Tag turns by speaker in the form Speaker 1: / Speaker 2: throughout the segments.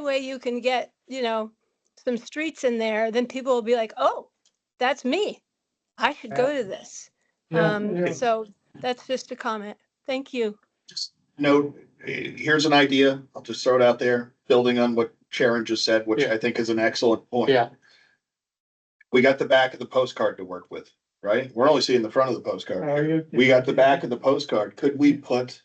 Speaker 1: way you can get, you know, some streets in there, then people will be like, oh, that's me. I should go to this.
Speaker 2: Yeah,
Speaker 1: Um,
Speaker 2: yeah.
Speaker 1: so that's just a comment. Thank you.
Speaker 3: just note, eh, here's an idea, I'll just throw it out there, building on what Sharon just said, which
Speaker 2: Yeah.
Speaker 3: I think is an excellent point.
Speaker 2: Yeah.
Speaker 3: We got the back of the postcard to work with, right? We're only seeing the front of the postcard.
Speaker 4: Uh,
Speaker 2: Are you-
Speaker 3: We got the back of the postcard. Could we put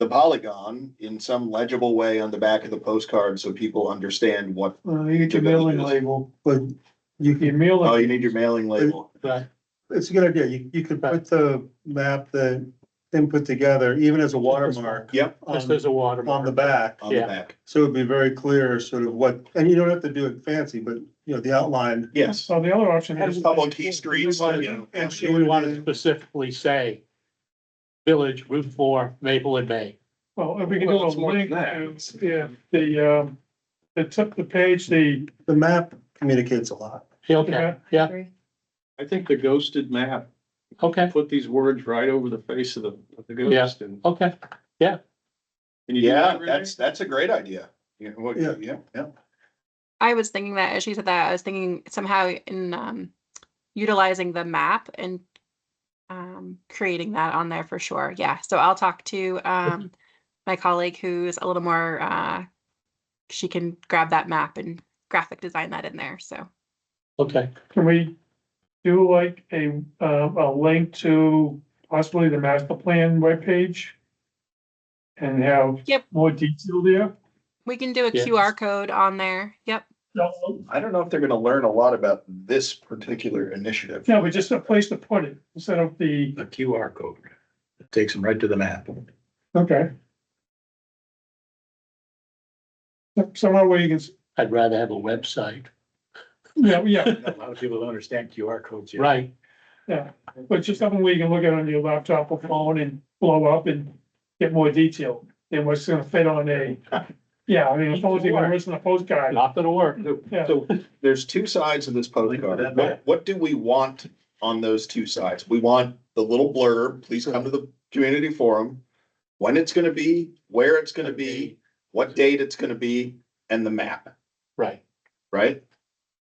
Speaker 3: the polygon in some legible way on the back of the postcard so people understand what,
Speaker 4: uh,
Speaker 5: Well, you get your mailing label, but you
Speaker 2: Your
Speaker 5: can,
Speaker 2: meal.
Speaker 3: oh, you need your mailing label.
Speaker 2: Right.
Speaker 5: it's a good idea. You, you could put the map that them put together, even as a watermark
Speaker 3: Yep,
Speaker 2: Just
Speaker 5: on,
Speaker 2: as a watermark.
Speaker 5: on the back.
Speaker 3: on the
Speaker 2: Yeah.
Speaker 3: back.
Speaker 5: So it'd be very clear sort of what, and you don't have to do it fancy, but you know, the outline.
Speaker 3: Yes,
Speaker 2: So the other option
Speaker 3: is- Public key streets, you know.
Speaker 2: And so we want to specifically say Village Route Four, Maplewood Bay.
Speaker 4: Well, if we can do
Speaker 6: Well,
Speaker 4: a
Speaker 6: it's more than
Speaker 4: link,
Speaker 6: that.
Speaker 4: to- yeah, the, um, the tip, the page, the,
Speaker 5: The map communicates a lot.
Speaker 2: Okay, yeah,
Speaker 6: I think the ghosted map,
Speaker 2: okay,
Speaker 6: put these words right over the face of the, of the ghost and.
Speaker 2: okay.
Speaker 6: can you do that,
Speaker 3: yeah,
Speaker 6: Renee?
Speaker 3: that's, that's a great idea. Yeah, what-
Speaker 5: Yeah.
Speaker 3: yeah, yeah.
Speaker 7: I was thinking that as she said that, I was thinking somehow in um, utilizing the map and um, creating that on there for sure. Yeah. So I'll talk to um, my colleague who's a little more, uh, she can grab that map and graphic design that in there. So
Speaker 2: Okay,
Speaker 4: can we do like a, um, a link to possibly the master plan webpage? And have
Speaker 7: Yep.
Speaker 4: more detail there?
Speaker 7: we can do a
Speaker 2: Yeah.
Speaker 7: QR code on there. Yep.
Speaker 4: No,
Speaker 3: I don't know if they're gonna learn a lot about this particular initiative.
Speaker 4: no, but just a place to put it instead of the,
Speaker 6: A QR code. It Takes them right to the map.
Speaker 4: okay. Somewhere where you can, s-
Speaker 2: I'd rather have a website,
Speaker 4: yeah, yeah.
Speaker 6: A lot of people don't understand QR codes
Speaker 2: right?
Speaker 4: Yeah, but just something where you can look at it on your laptop or phone and blow up and get more detail than what's gonna fit on a, yeah, I mean, as long as you can listen to postcard.
Speaker 2: Not gonna work.
Speaker 4: Yeah.
Speaker 3: So there's two sides of this postcard. What, what do we want on those two sides? We want the little blurb, please come to the community forum. When it's gonna be, where it's gonna be, what date it's gonna be, and the map,
Speaker 2: Right.
Speaker 3: right?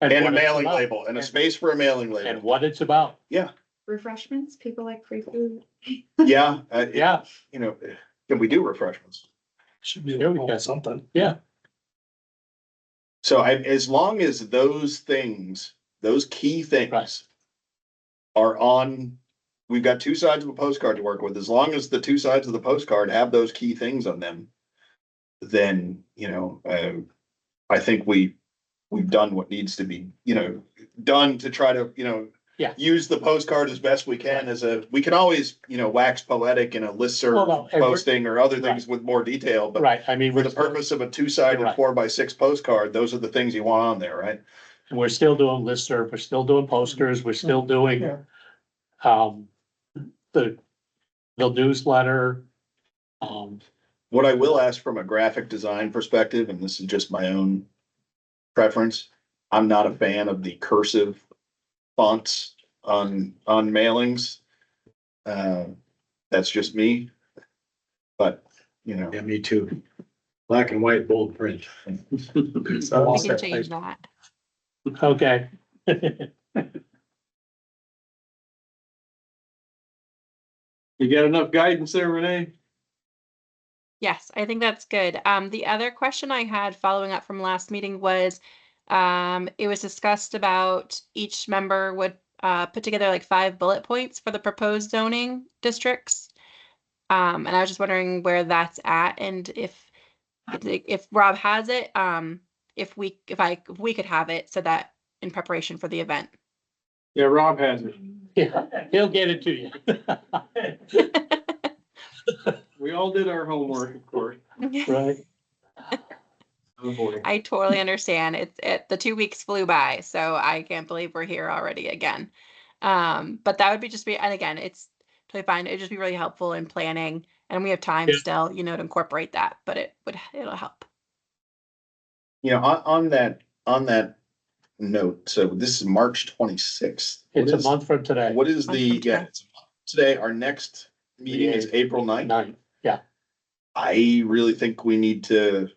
Speaker 3: And a
Speaker 2: what it's
Speaker 3: mailing
Speaker 2: about.
Speaker 3: label, and a space for a mailing
Speaker 2: And
Speaker 3: label.
Speaker 2: what it's about,
Speaker 8: refreshments, people like free food.
Speaker 3: Yeah, uh, it-
Speaker 2: yeah,
Speaker 3: you know, can we do refreshments?
Speaker 6: Should be
Speaker 2: There we go.
Speaker 6: something.
Speaker 3: So I, as long as those things, those key
Speaker 2: Right.
Speaker 3: things are on, we've got two sides of a postcard to work with. As long as the two sides of the postcard have those key things on them, then, you know, uh, I think we, we've done what needs to be, you know, done to try to, you know,
Speaker 2: Yeah.
Speaker 3: use the postcard as best we can as a, we can always, you know, wax poetic in a
Speaker 2: Well,
Speaker 3: listserv
Speaker 2: no, and we're-
Speaker 3: posting or other things with more detail, but
Speaker 2: right, I mean,
Speaker 3: for
Speaker 2: we're,
Speaker 3: the
Speaker 2: still-
Speaker 3: purpose of a two-sided
Speaker 2: Right.
Speaker 3: four by six postcard, those are the things you want on there, right?
Speaker 2: we're still doing listserv, we're still doing posters, we're still doing
Speaker 4: Yeah.
Speaker 2: um, the, the newsletter. Um,
Speaker 3: What I will ask from a graphic design perspective, and this is just my own preference, I'm not a fan of the cursive fonts on, on mailings. Uh, that's just me. But, you know,
Speaker 6: Yeah, me too. Black and white bold print.
Speaker 7: We
Speaker 2: Okay.
Speaker 7: can change that.
Speaker 2: okay.
Speaker 6: You got enough guidance there, Renee?
Speaker 7: Yes, I think that's good. Um, the other question I had following up from last meeting was, um, it was discussed about each member would, uh, put together like five bullet points for the proposed zoning districts. Um, and I was just wondering where that's at and if, if if Rob has it, um, if we, if I, if we could have it so that in preparation for the event.
Speaker 6: Yeah, Rob has it.
Speaker 2: Yeah, he'll get it to you.
Speaker 6: We all did our homework, of course.
Speaker 2: Right.
Speaker 6: Oh, boy.
Speaker 7: I totally understand. It's it the two weeks flew by, so I can't believe we're here already again. Um, but that would be just be and again, it's totally fine. It'd just be really helpful in planning and we have time
Speaker 2: Yeah.
Speaker 7: still, you know, to incorporate that, but it would it'll help.
Speaker 3: you know, on, on that, on that note, so this is March twenty-sixth.
Speaker 2: It's a month from today,
Speaker 3: What is
Speaker 7: Month
Speaker 3: the,
Speaker 7: from today.
Speaker 3: yeah, it's a month from today, our next meeting is April ninth.
Speaker 2: nine.
Speaker 3: I really think we need to